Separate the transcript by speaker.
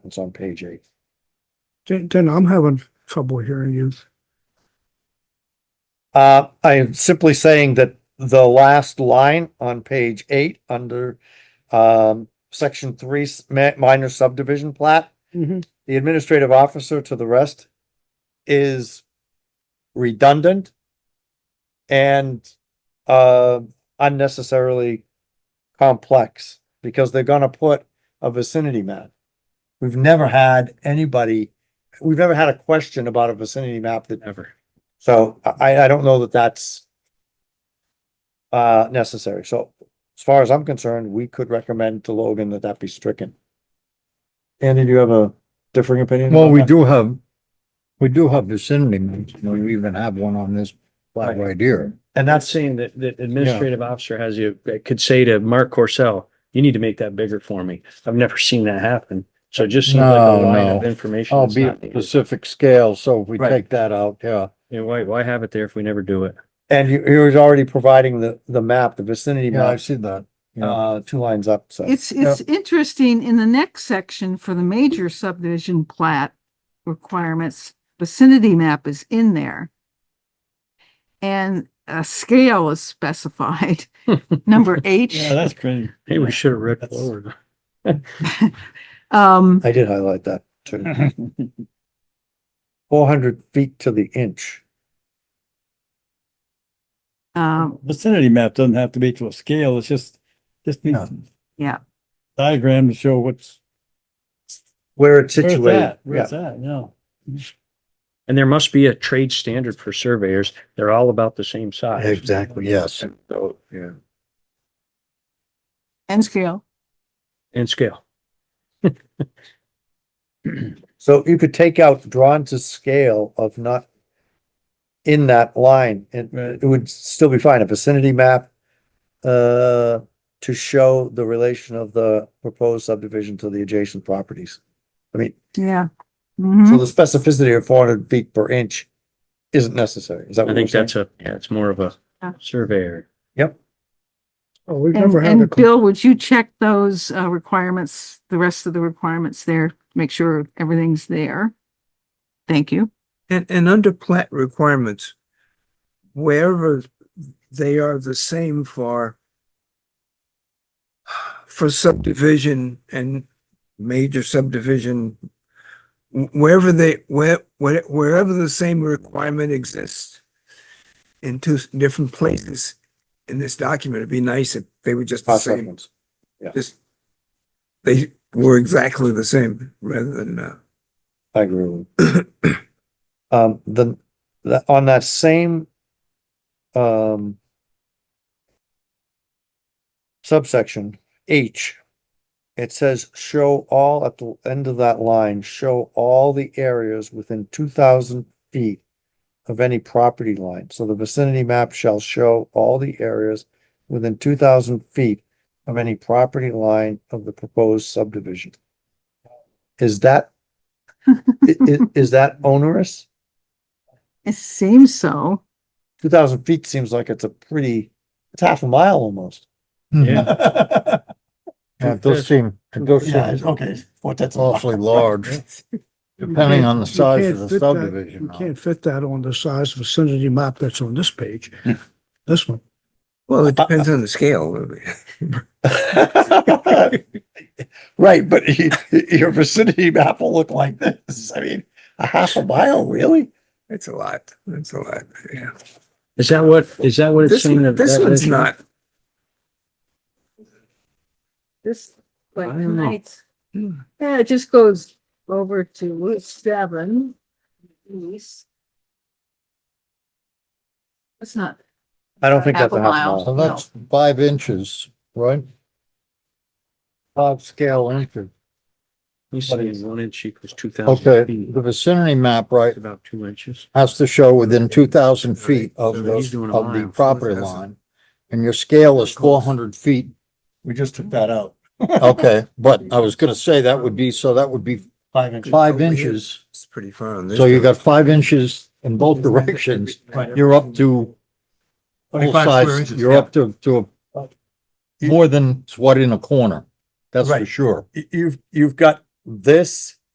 Speaker 1: It's on page eight.
Speaker 2: Dan, Dan, I'm having trouble hearing you.
Speaker 1: Uh, I am simply saying that the last line on page eight, under, um, section three, s- ma- minor subdivision plat,
Speaker 3: Mm-hmm.
Speaker 1: the administrative officer to the rest is redundant and, uh, unnecessarily complex because they're gonna put a vicinity map. We've never had anybody, we've never had a question about a vicinity map that
Speaker 4: Ever.
Speaker 1: so I, I don't know that that's uh, necessary. So as far as I'm concerned, we could recommend to Logan that that be stricken. Andy, do you have a differing opinion?
Speaker 4: Well,
Speaker 1: about
Speaker 4: we
Speaker 1: that?
Speaker 4: do have, we do have vicinity maps, you know, you even have one on this plot right here.
Speaker 1: And
Speaker 5: That's
Speaker 1: that's,
Speaker 5: saying that, that administrative officer has you, that could say to Mark Corsell, you need to make that bigger for me. I've never seen that happen. So it just seems like a
Speaker 4: No,
Speaker 5: line
Speaker 4: no.
Speaker 5: of information. that's
Speaker 4: Albeit
Speaker 5: not needed.
Speaker 4: specific scale, so if we
Speaker 1: Right.
Speaker 4: take that out, yeah.
Speaker 5: And why, why have it there if we never do it?
Speaker 1: and you, he was already providing the, the map, the vicinity
Speaker 4: Yeah, I
Speaker 1: map,
Speaker 4: see that. Yeah,
Speaker 1: uh, two lines up, so.
Speaker 3: It's, it's interesting in the next section for the major subdivision plat requirements, vicinity map is in there. And a scale is specified, number eight.
Speaker 6: Oh,
Speaker 5: that's great. Hey, we should have read forward.
Speaker 3: Um,
Speaker 1: I did highlight that too. Four hundred feet to the inch.
Speaker 3: um,
Speaker 6: vicinity map doesn't have to be to a scale, it's just, just needs.
Speaker 3: Yeah.
Speaker 6: Diagram to show what's.
Speaker 1: Where it's
Speaker 6: where it's
Speaker 1: situated,
Speaker 6: at, Where
Speaker 1: yeah.
Speaker 6: it's at, yeah.
Speaker 5: And there must be a trade standard for surveyors. They're all about the same size.
Speaker 4: exactly, yes.
Speaker 5: So,
Speaker 3: and scale.
Speaker 5: and scale.
Speaker 1: So you could take out drawn to scale of not in that line and
Speaker 6: Right.
Speaker 1: it would still be fine. A vicinity map uh, to show the relation of the proposed subdivision to the adjacent properties. I mean,
Speaker 3: Yeah. Mhm.
Speaker 1: so the specificity of four hundred feet per inch isn't necessary. Is that
Speaker 5: I
Speaker 1: what you're
Speaker 5: think
Speaker 1: saying?
Speaker 5: that's a, yeah, it's more of a
Speaker 3: Yeah.
Speaker 5: surveyor.
Speaker 2: Oh, we've
Speaker 3: And,
Speaker 2: never had a,
Speaker 3: and
Speaker 2: com-
Speaker 3: Bill, would you check those, uh, requirements, the rest of the requirements there, make sure everything's there? Thank you.
Speaker 7: And, and under plat requirements, wherever they are the same for for subdivision and major subdivision, wh- wherever they, where, where- wherever the same requirement exists in two s- different places in this document, it'd be nice if they were just the
Speaker 1: Cross
Speaker 7: same,
Speaker 1: reference.
Speaker 7: just they were exactly the same rather than, uh,
Speaker 1: I agree with you. Um, the, the, on that same, um, subsection H, it says show all, at the end of that line, show all the areas within two thousand feet of any property line. So the vicinity map shall show all the areas within two thousand feet of any property line of the proposed subdivision. Is that I- i- is that onerous?
Speaker 3: It seems so.
Speaker 1: Two thousand feet seems like it's a pretty, it's half a mile almost.
Speaker 4: Yeah,
Speaker 1: Yeah,
Speaker 4: it does seem, it does
Speaker 1: it's-
Speaker 4: seem
Speaker 1: okay, what that's
Speaker 4: awfully large, depending on the
Speaker 2: You
Speaker 4: size
Speaker 2: can't
Speaker 4: of the
Speaker 2: fit that-
Speaker 4: subdivision.
Speaker 2: you can't fit that on the size vicinity map that's on this page. This one.
Speaker 7: well, it depends on the scale.
Speaker 1: Right, but y- y- your vicinity map will look like this. I mean, a half a mile, really?
Speaker 7: It's a lot. It's a lot. Yeah.
Speaker 5: Is that what, is that what it's
Speaker 7: This,
Speaker 5: saying?
Speaker 7: one- this one's not,
Speaker 3: This, like
Speaker 5: I don't know.
Speaker 3: tonight's, yeah, it just goes over to seven. east. It's not,
Speaker 1: I don't think that's a half a
Speaker 3: Half a mile.
Speaker 1: mile.
Speaker 4: So that's five inches, right? Five scale inches.
Speaker 5: He's saying one inch equals two thousand
Speaker 4: Okay,
Speaker 5: feet.
Speaker 4: the vicinity map, right,
Speaker 5: It's about two inches.
Speaker 4: has to show within two thousand feet of the,
Speaker 5: He's doing a
Speaker 4: of the
Speaker 5: mile.
Speaker 4: property line. And your scale is four hundred feet.
Speaker 1: We just took that out.
Speaker 4: Okay, but I was gonna say that would be, so that would be
Speaker 1: Five inches.
Speaker 4: five inches.
Speaker 7: it's pretty far on this.
Speaker 4: So you
Speaker 7: one.
Speaker 4: got five inches in both directions.
Speaker 7: Right.
Speaker 4: You're up to full
Speaker 7: 25 square
Speaker 4: size,
Speaker 7: inches,
Speaker 4: you're
Speaker 7: yeah.
Speaker 4: up to, to a- more than what in a corner. That's for
Speaker 1: Right.
Speaker 4: sure.
Speaker 1: y- you've, you've got this